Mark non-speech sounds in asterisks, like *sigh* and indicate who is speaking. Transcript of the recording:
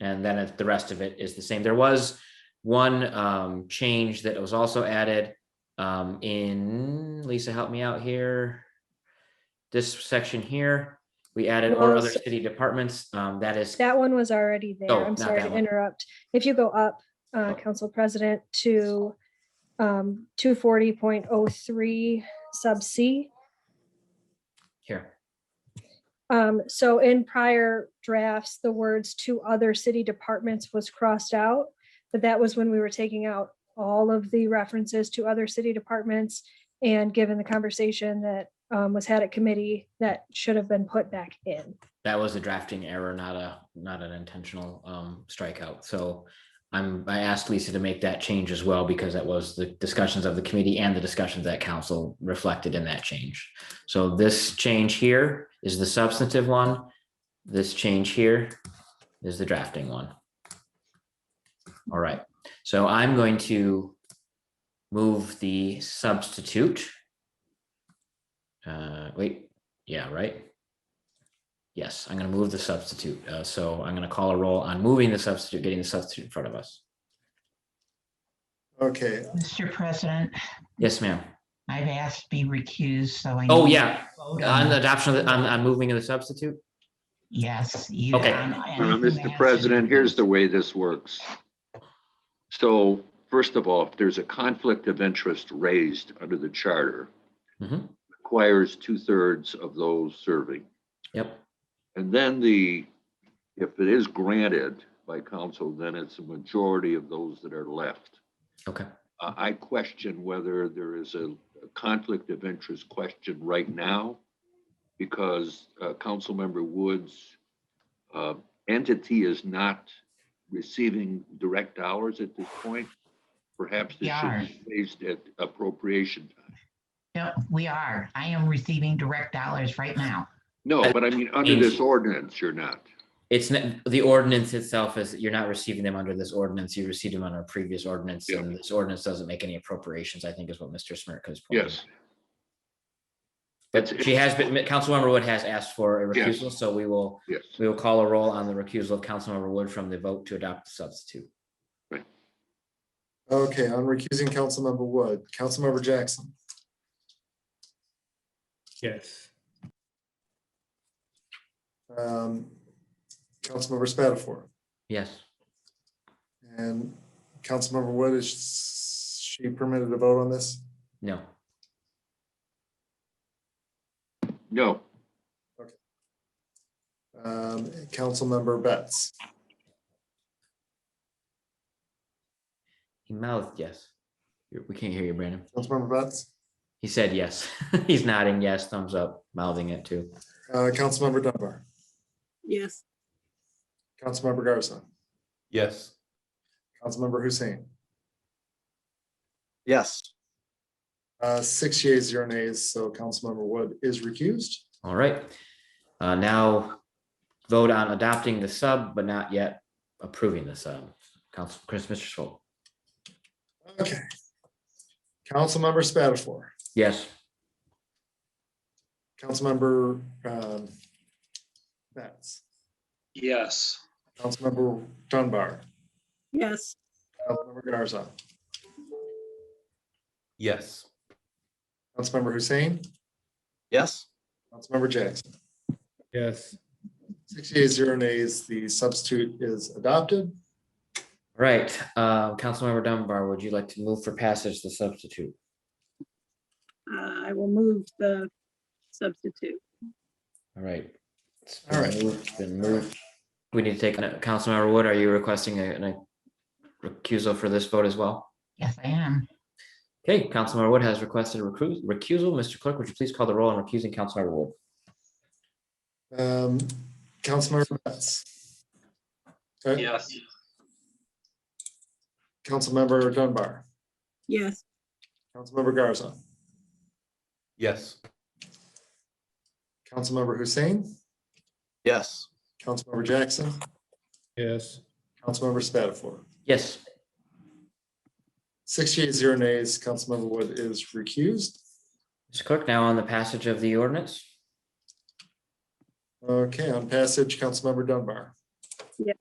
Speaker 1: And then it- the rest of it is the same. There was one um, change that was also added um, in, Lisa, help me out here. This section here, we added or
Speaker 2: No,
Speaker 1: other
Speaker 2: so-
Speaker 1: city departments. Um, That is,
Speaker 2: That one was already
Speaker 1: Oh,
Speaker 2: there. I'm
Speaker 1: not
Speaker 2: sorry
Speaker 1: that
Speaker 2: to
Speaker 1: one. Oh.
Speaker 2: interrupt. If you go up, uh, Council President, to um, 240.03 sub C.
Speaker 1: here,
Speaker 2: Um, So in prior drafts, the words "to other city departments" was crossed out. But that was when we were taking out all of the references to other city departments. And given the conversation that um, was had at committee, that should have been put back in.
Speaker 1: that was a drafting error, not a, not an intentional um, strikeout. So I'm, I asked Lisa to make that change as well because that was the discussions of the committee and the discussions that council reflected in that change. So this change here is the substantive one. This change here is the drafting one. All right, so I'm going to move the substitute. Uh, wait, yeah, right? Yes, I'm gonna move the substitute. Uh, so I'm gonna call a roll on moving the substitute, getting the substitute in front of us.
Speaker 3: Okay,
Speaker 4: Mr. President,
Speaker 1: Yes, ma'am.
Speaker 4: I've asked be recused, so I.
Speaker 1: Oh,
Speaker 4: need
Speaker 1: yeah,
Speaker 4: to vote
Speaker 1: on the
Speaker 4: on-
Speaker 1: adoption of, the- on, on moving of the substitute?
Speaker 4: Yes. you-
Speaker 1: Okay.
Speaker 4: on
Speaker 5: Uh,
Speaker 4: anything
Speaker 5: Mr.
Speaker 4: else.
Speaker 5: President, here's the way this works. So first of all, if there's a conflict of interest raised under the charter,
Speaker 1: Mhm.
Speaker 5: requires two-thirds of those serving.
Speaker 1: Yep,
Speaker 5: And then the, if it is granted by council, then it's a majority of those that are left.
Speaker 1: okay,
Speaker 5: Uh, I question whether there is a a conflict of interest question right now because uh, Councilmember Woods' uh, entity is not receiving direct hours at this point. Perhaps this should be raised at appropriation time.
Speaker 4: No, we are. I am receiving direct dollars right now.
Speaker 5: No, but I mean, under this ordinance, you're not.
Speaker 1: it's, n- the ordinance itself is, you're not receiving them under this ordinance, you received them under a previous ordinance,
Speaker 5: Yeah.
Speaker 1: and this ordinance doesn't make any appropriations, I think is what Mr. Smirka is. pointing
Speaker 5: Yes.
Speaker 1: out. But she has been, Councilmember Wood has asked for a
Speaker 5: Yes.
Speaker 1: recusal, so we will,
Speaker 5: Yes.
Speaker 1: we will call a roll on the recusal of Councilmember Wood from the vote to adopt the substitute.
Speaker 3: okay, I'm recusing Councilmember Wood. Councilmember Jackson,
Speaker 6: Yes.
Speaker 3: um, Councilmember Spatafor,
Speaker 1: Yes,
Speaker 3: and Councilmember Wood, is she permitted to vote on this?
Speaker 1: no,
Speaker 5: No,
Speaker 3: Um, Councilmember Betts,
Speaker 1: he mouthed yes. You- We can't hear you, Brandon.
Speaker 3: Councilmember Betts,
Speaker 1: He said yes. *laughs* He's nodding yes, thumbs up, mouthing it too.
Speaker 3: uh, Councilmember Dunbar,
Speaker 7: Yes,
Speaker 3: Councilmember Garza,
Speaker 6: Yes.
Speaker 3: Councilmember Hussein.
Speaker 8: yes.
Speaker 3: Uh, six yeas, zero nays, so Councilmember Wood is recused.
Speaker 1: All right. Uh, now vote on adopting the sub, but not yet approving the sub. Council, Chris, Mr. Swope.
Speaker 3: Okay. Councilmember Spatafor,
Speaker 1: Yes,
Speaker 3: Councilmember, um, Betts,
Speaker 8: Yes.
Speaker 3: Councilmember Dunbar,
Speaker 7: yes.
Speaker 3: Councilmember Garza,
Speaker 6: Yes.
Speaker 3: Councilmember Hussein,
Speaker 8: Yes.
Speaker 3: Councilmember Jackson.
Speaker 6: Yes.
Speaker 3: Six yeas, zero nays, the substitute is adopted.
Speaker 1: All right. Uh, Councilmember Dunbar, would you like to move for passage the substitute?
Speaker 7: Uh, I will move the substitute.
Speaker 1: All right. It's been
Speaker 3: All right.
Speaker 1: moved, it's Been moved. We need to take, uh, Councilmember Wood, are you requesting a- a recusal for this vote as well?
Speaker 4: Yes, I am.
Speaker 1: Okay, Councilmember Wood has requested a recru- recusal. Mr. Clerk, would you please call the roll on recusing Councilmember Wood?
Speaker 3: Um, Councilmember Betts. Uh,
Speaker 8: Yes.
Speaker 3: Councilmember Dunbar,
Speaker 7: Yes,
Speaker 3: Councilmember Garza,
Speaker 6: Yes.
Speaker 3: Councilmember Hussein,
Speaker 8: Yes.
Speaker 3: Councilmember Jackson,
Speaker 6: Yes.
Speaker 3: Councilmember Spatafor.
Speaker 1: Yes,
Speaker 3: Six yeas, zero nays, Councilmember Wood is recused.
Speaker 1: Mr. Clerk, now on the passage of the ordinance.
Speaker 3: Okay, on passage, Councilmember Dunbar.
Speaker 7: Yes.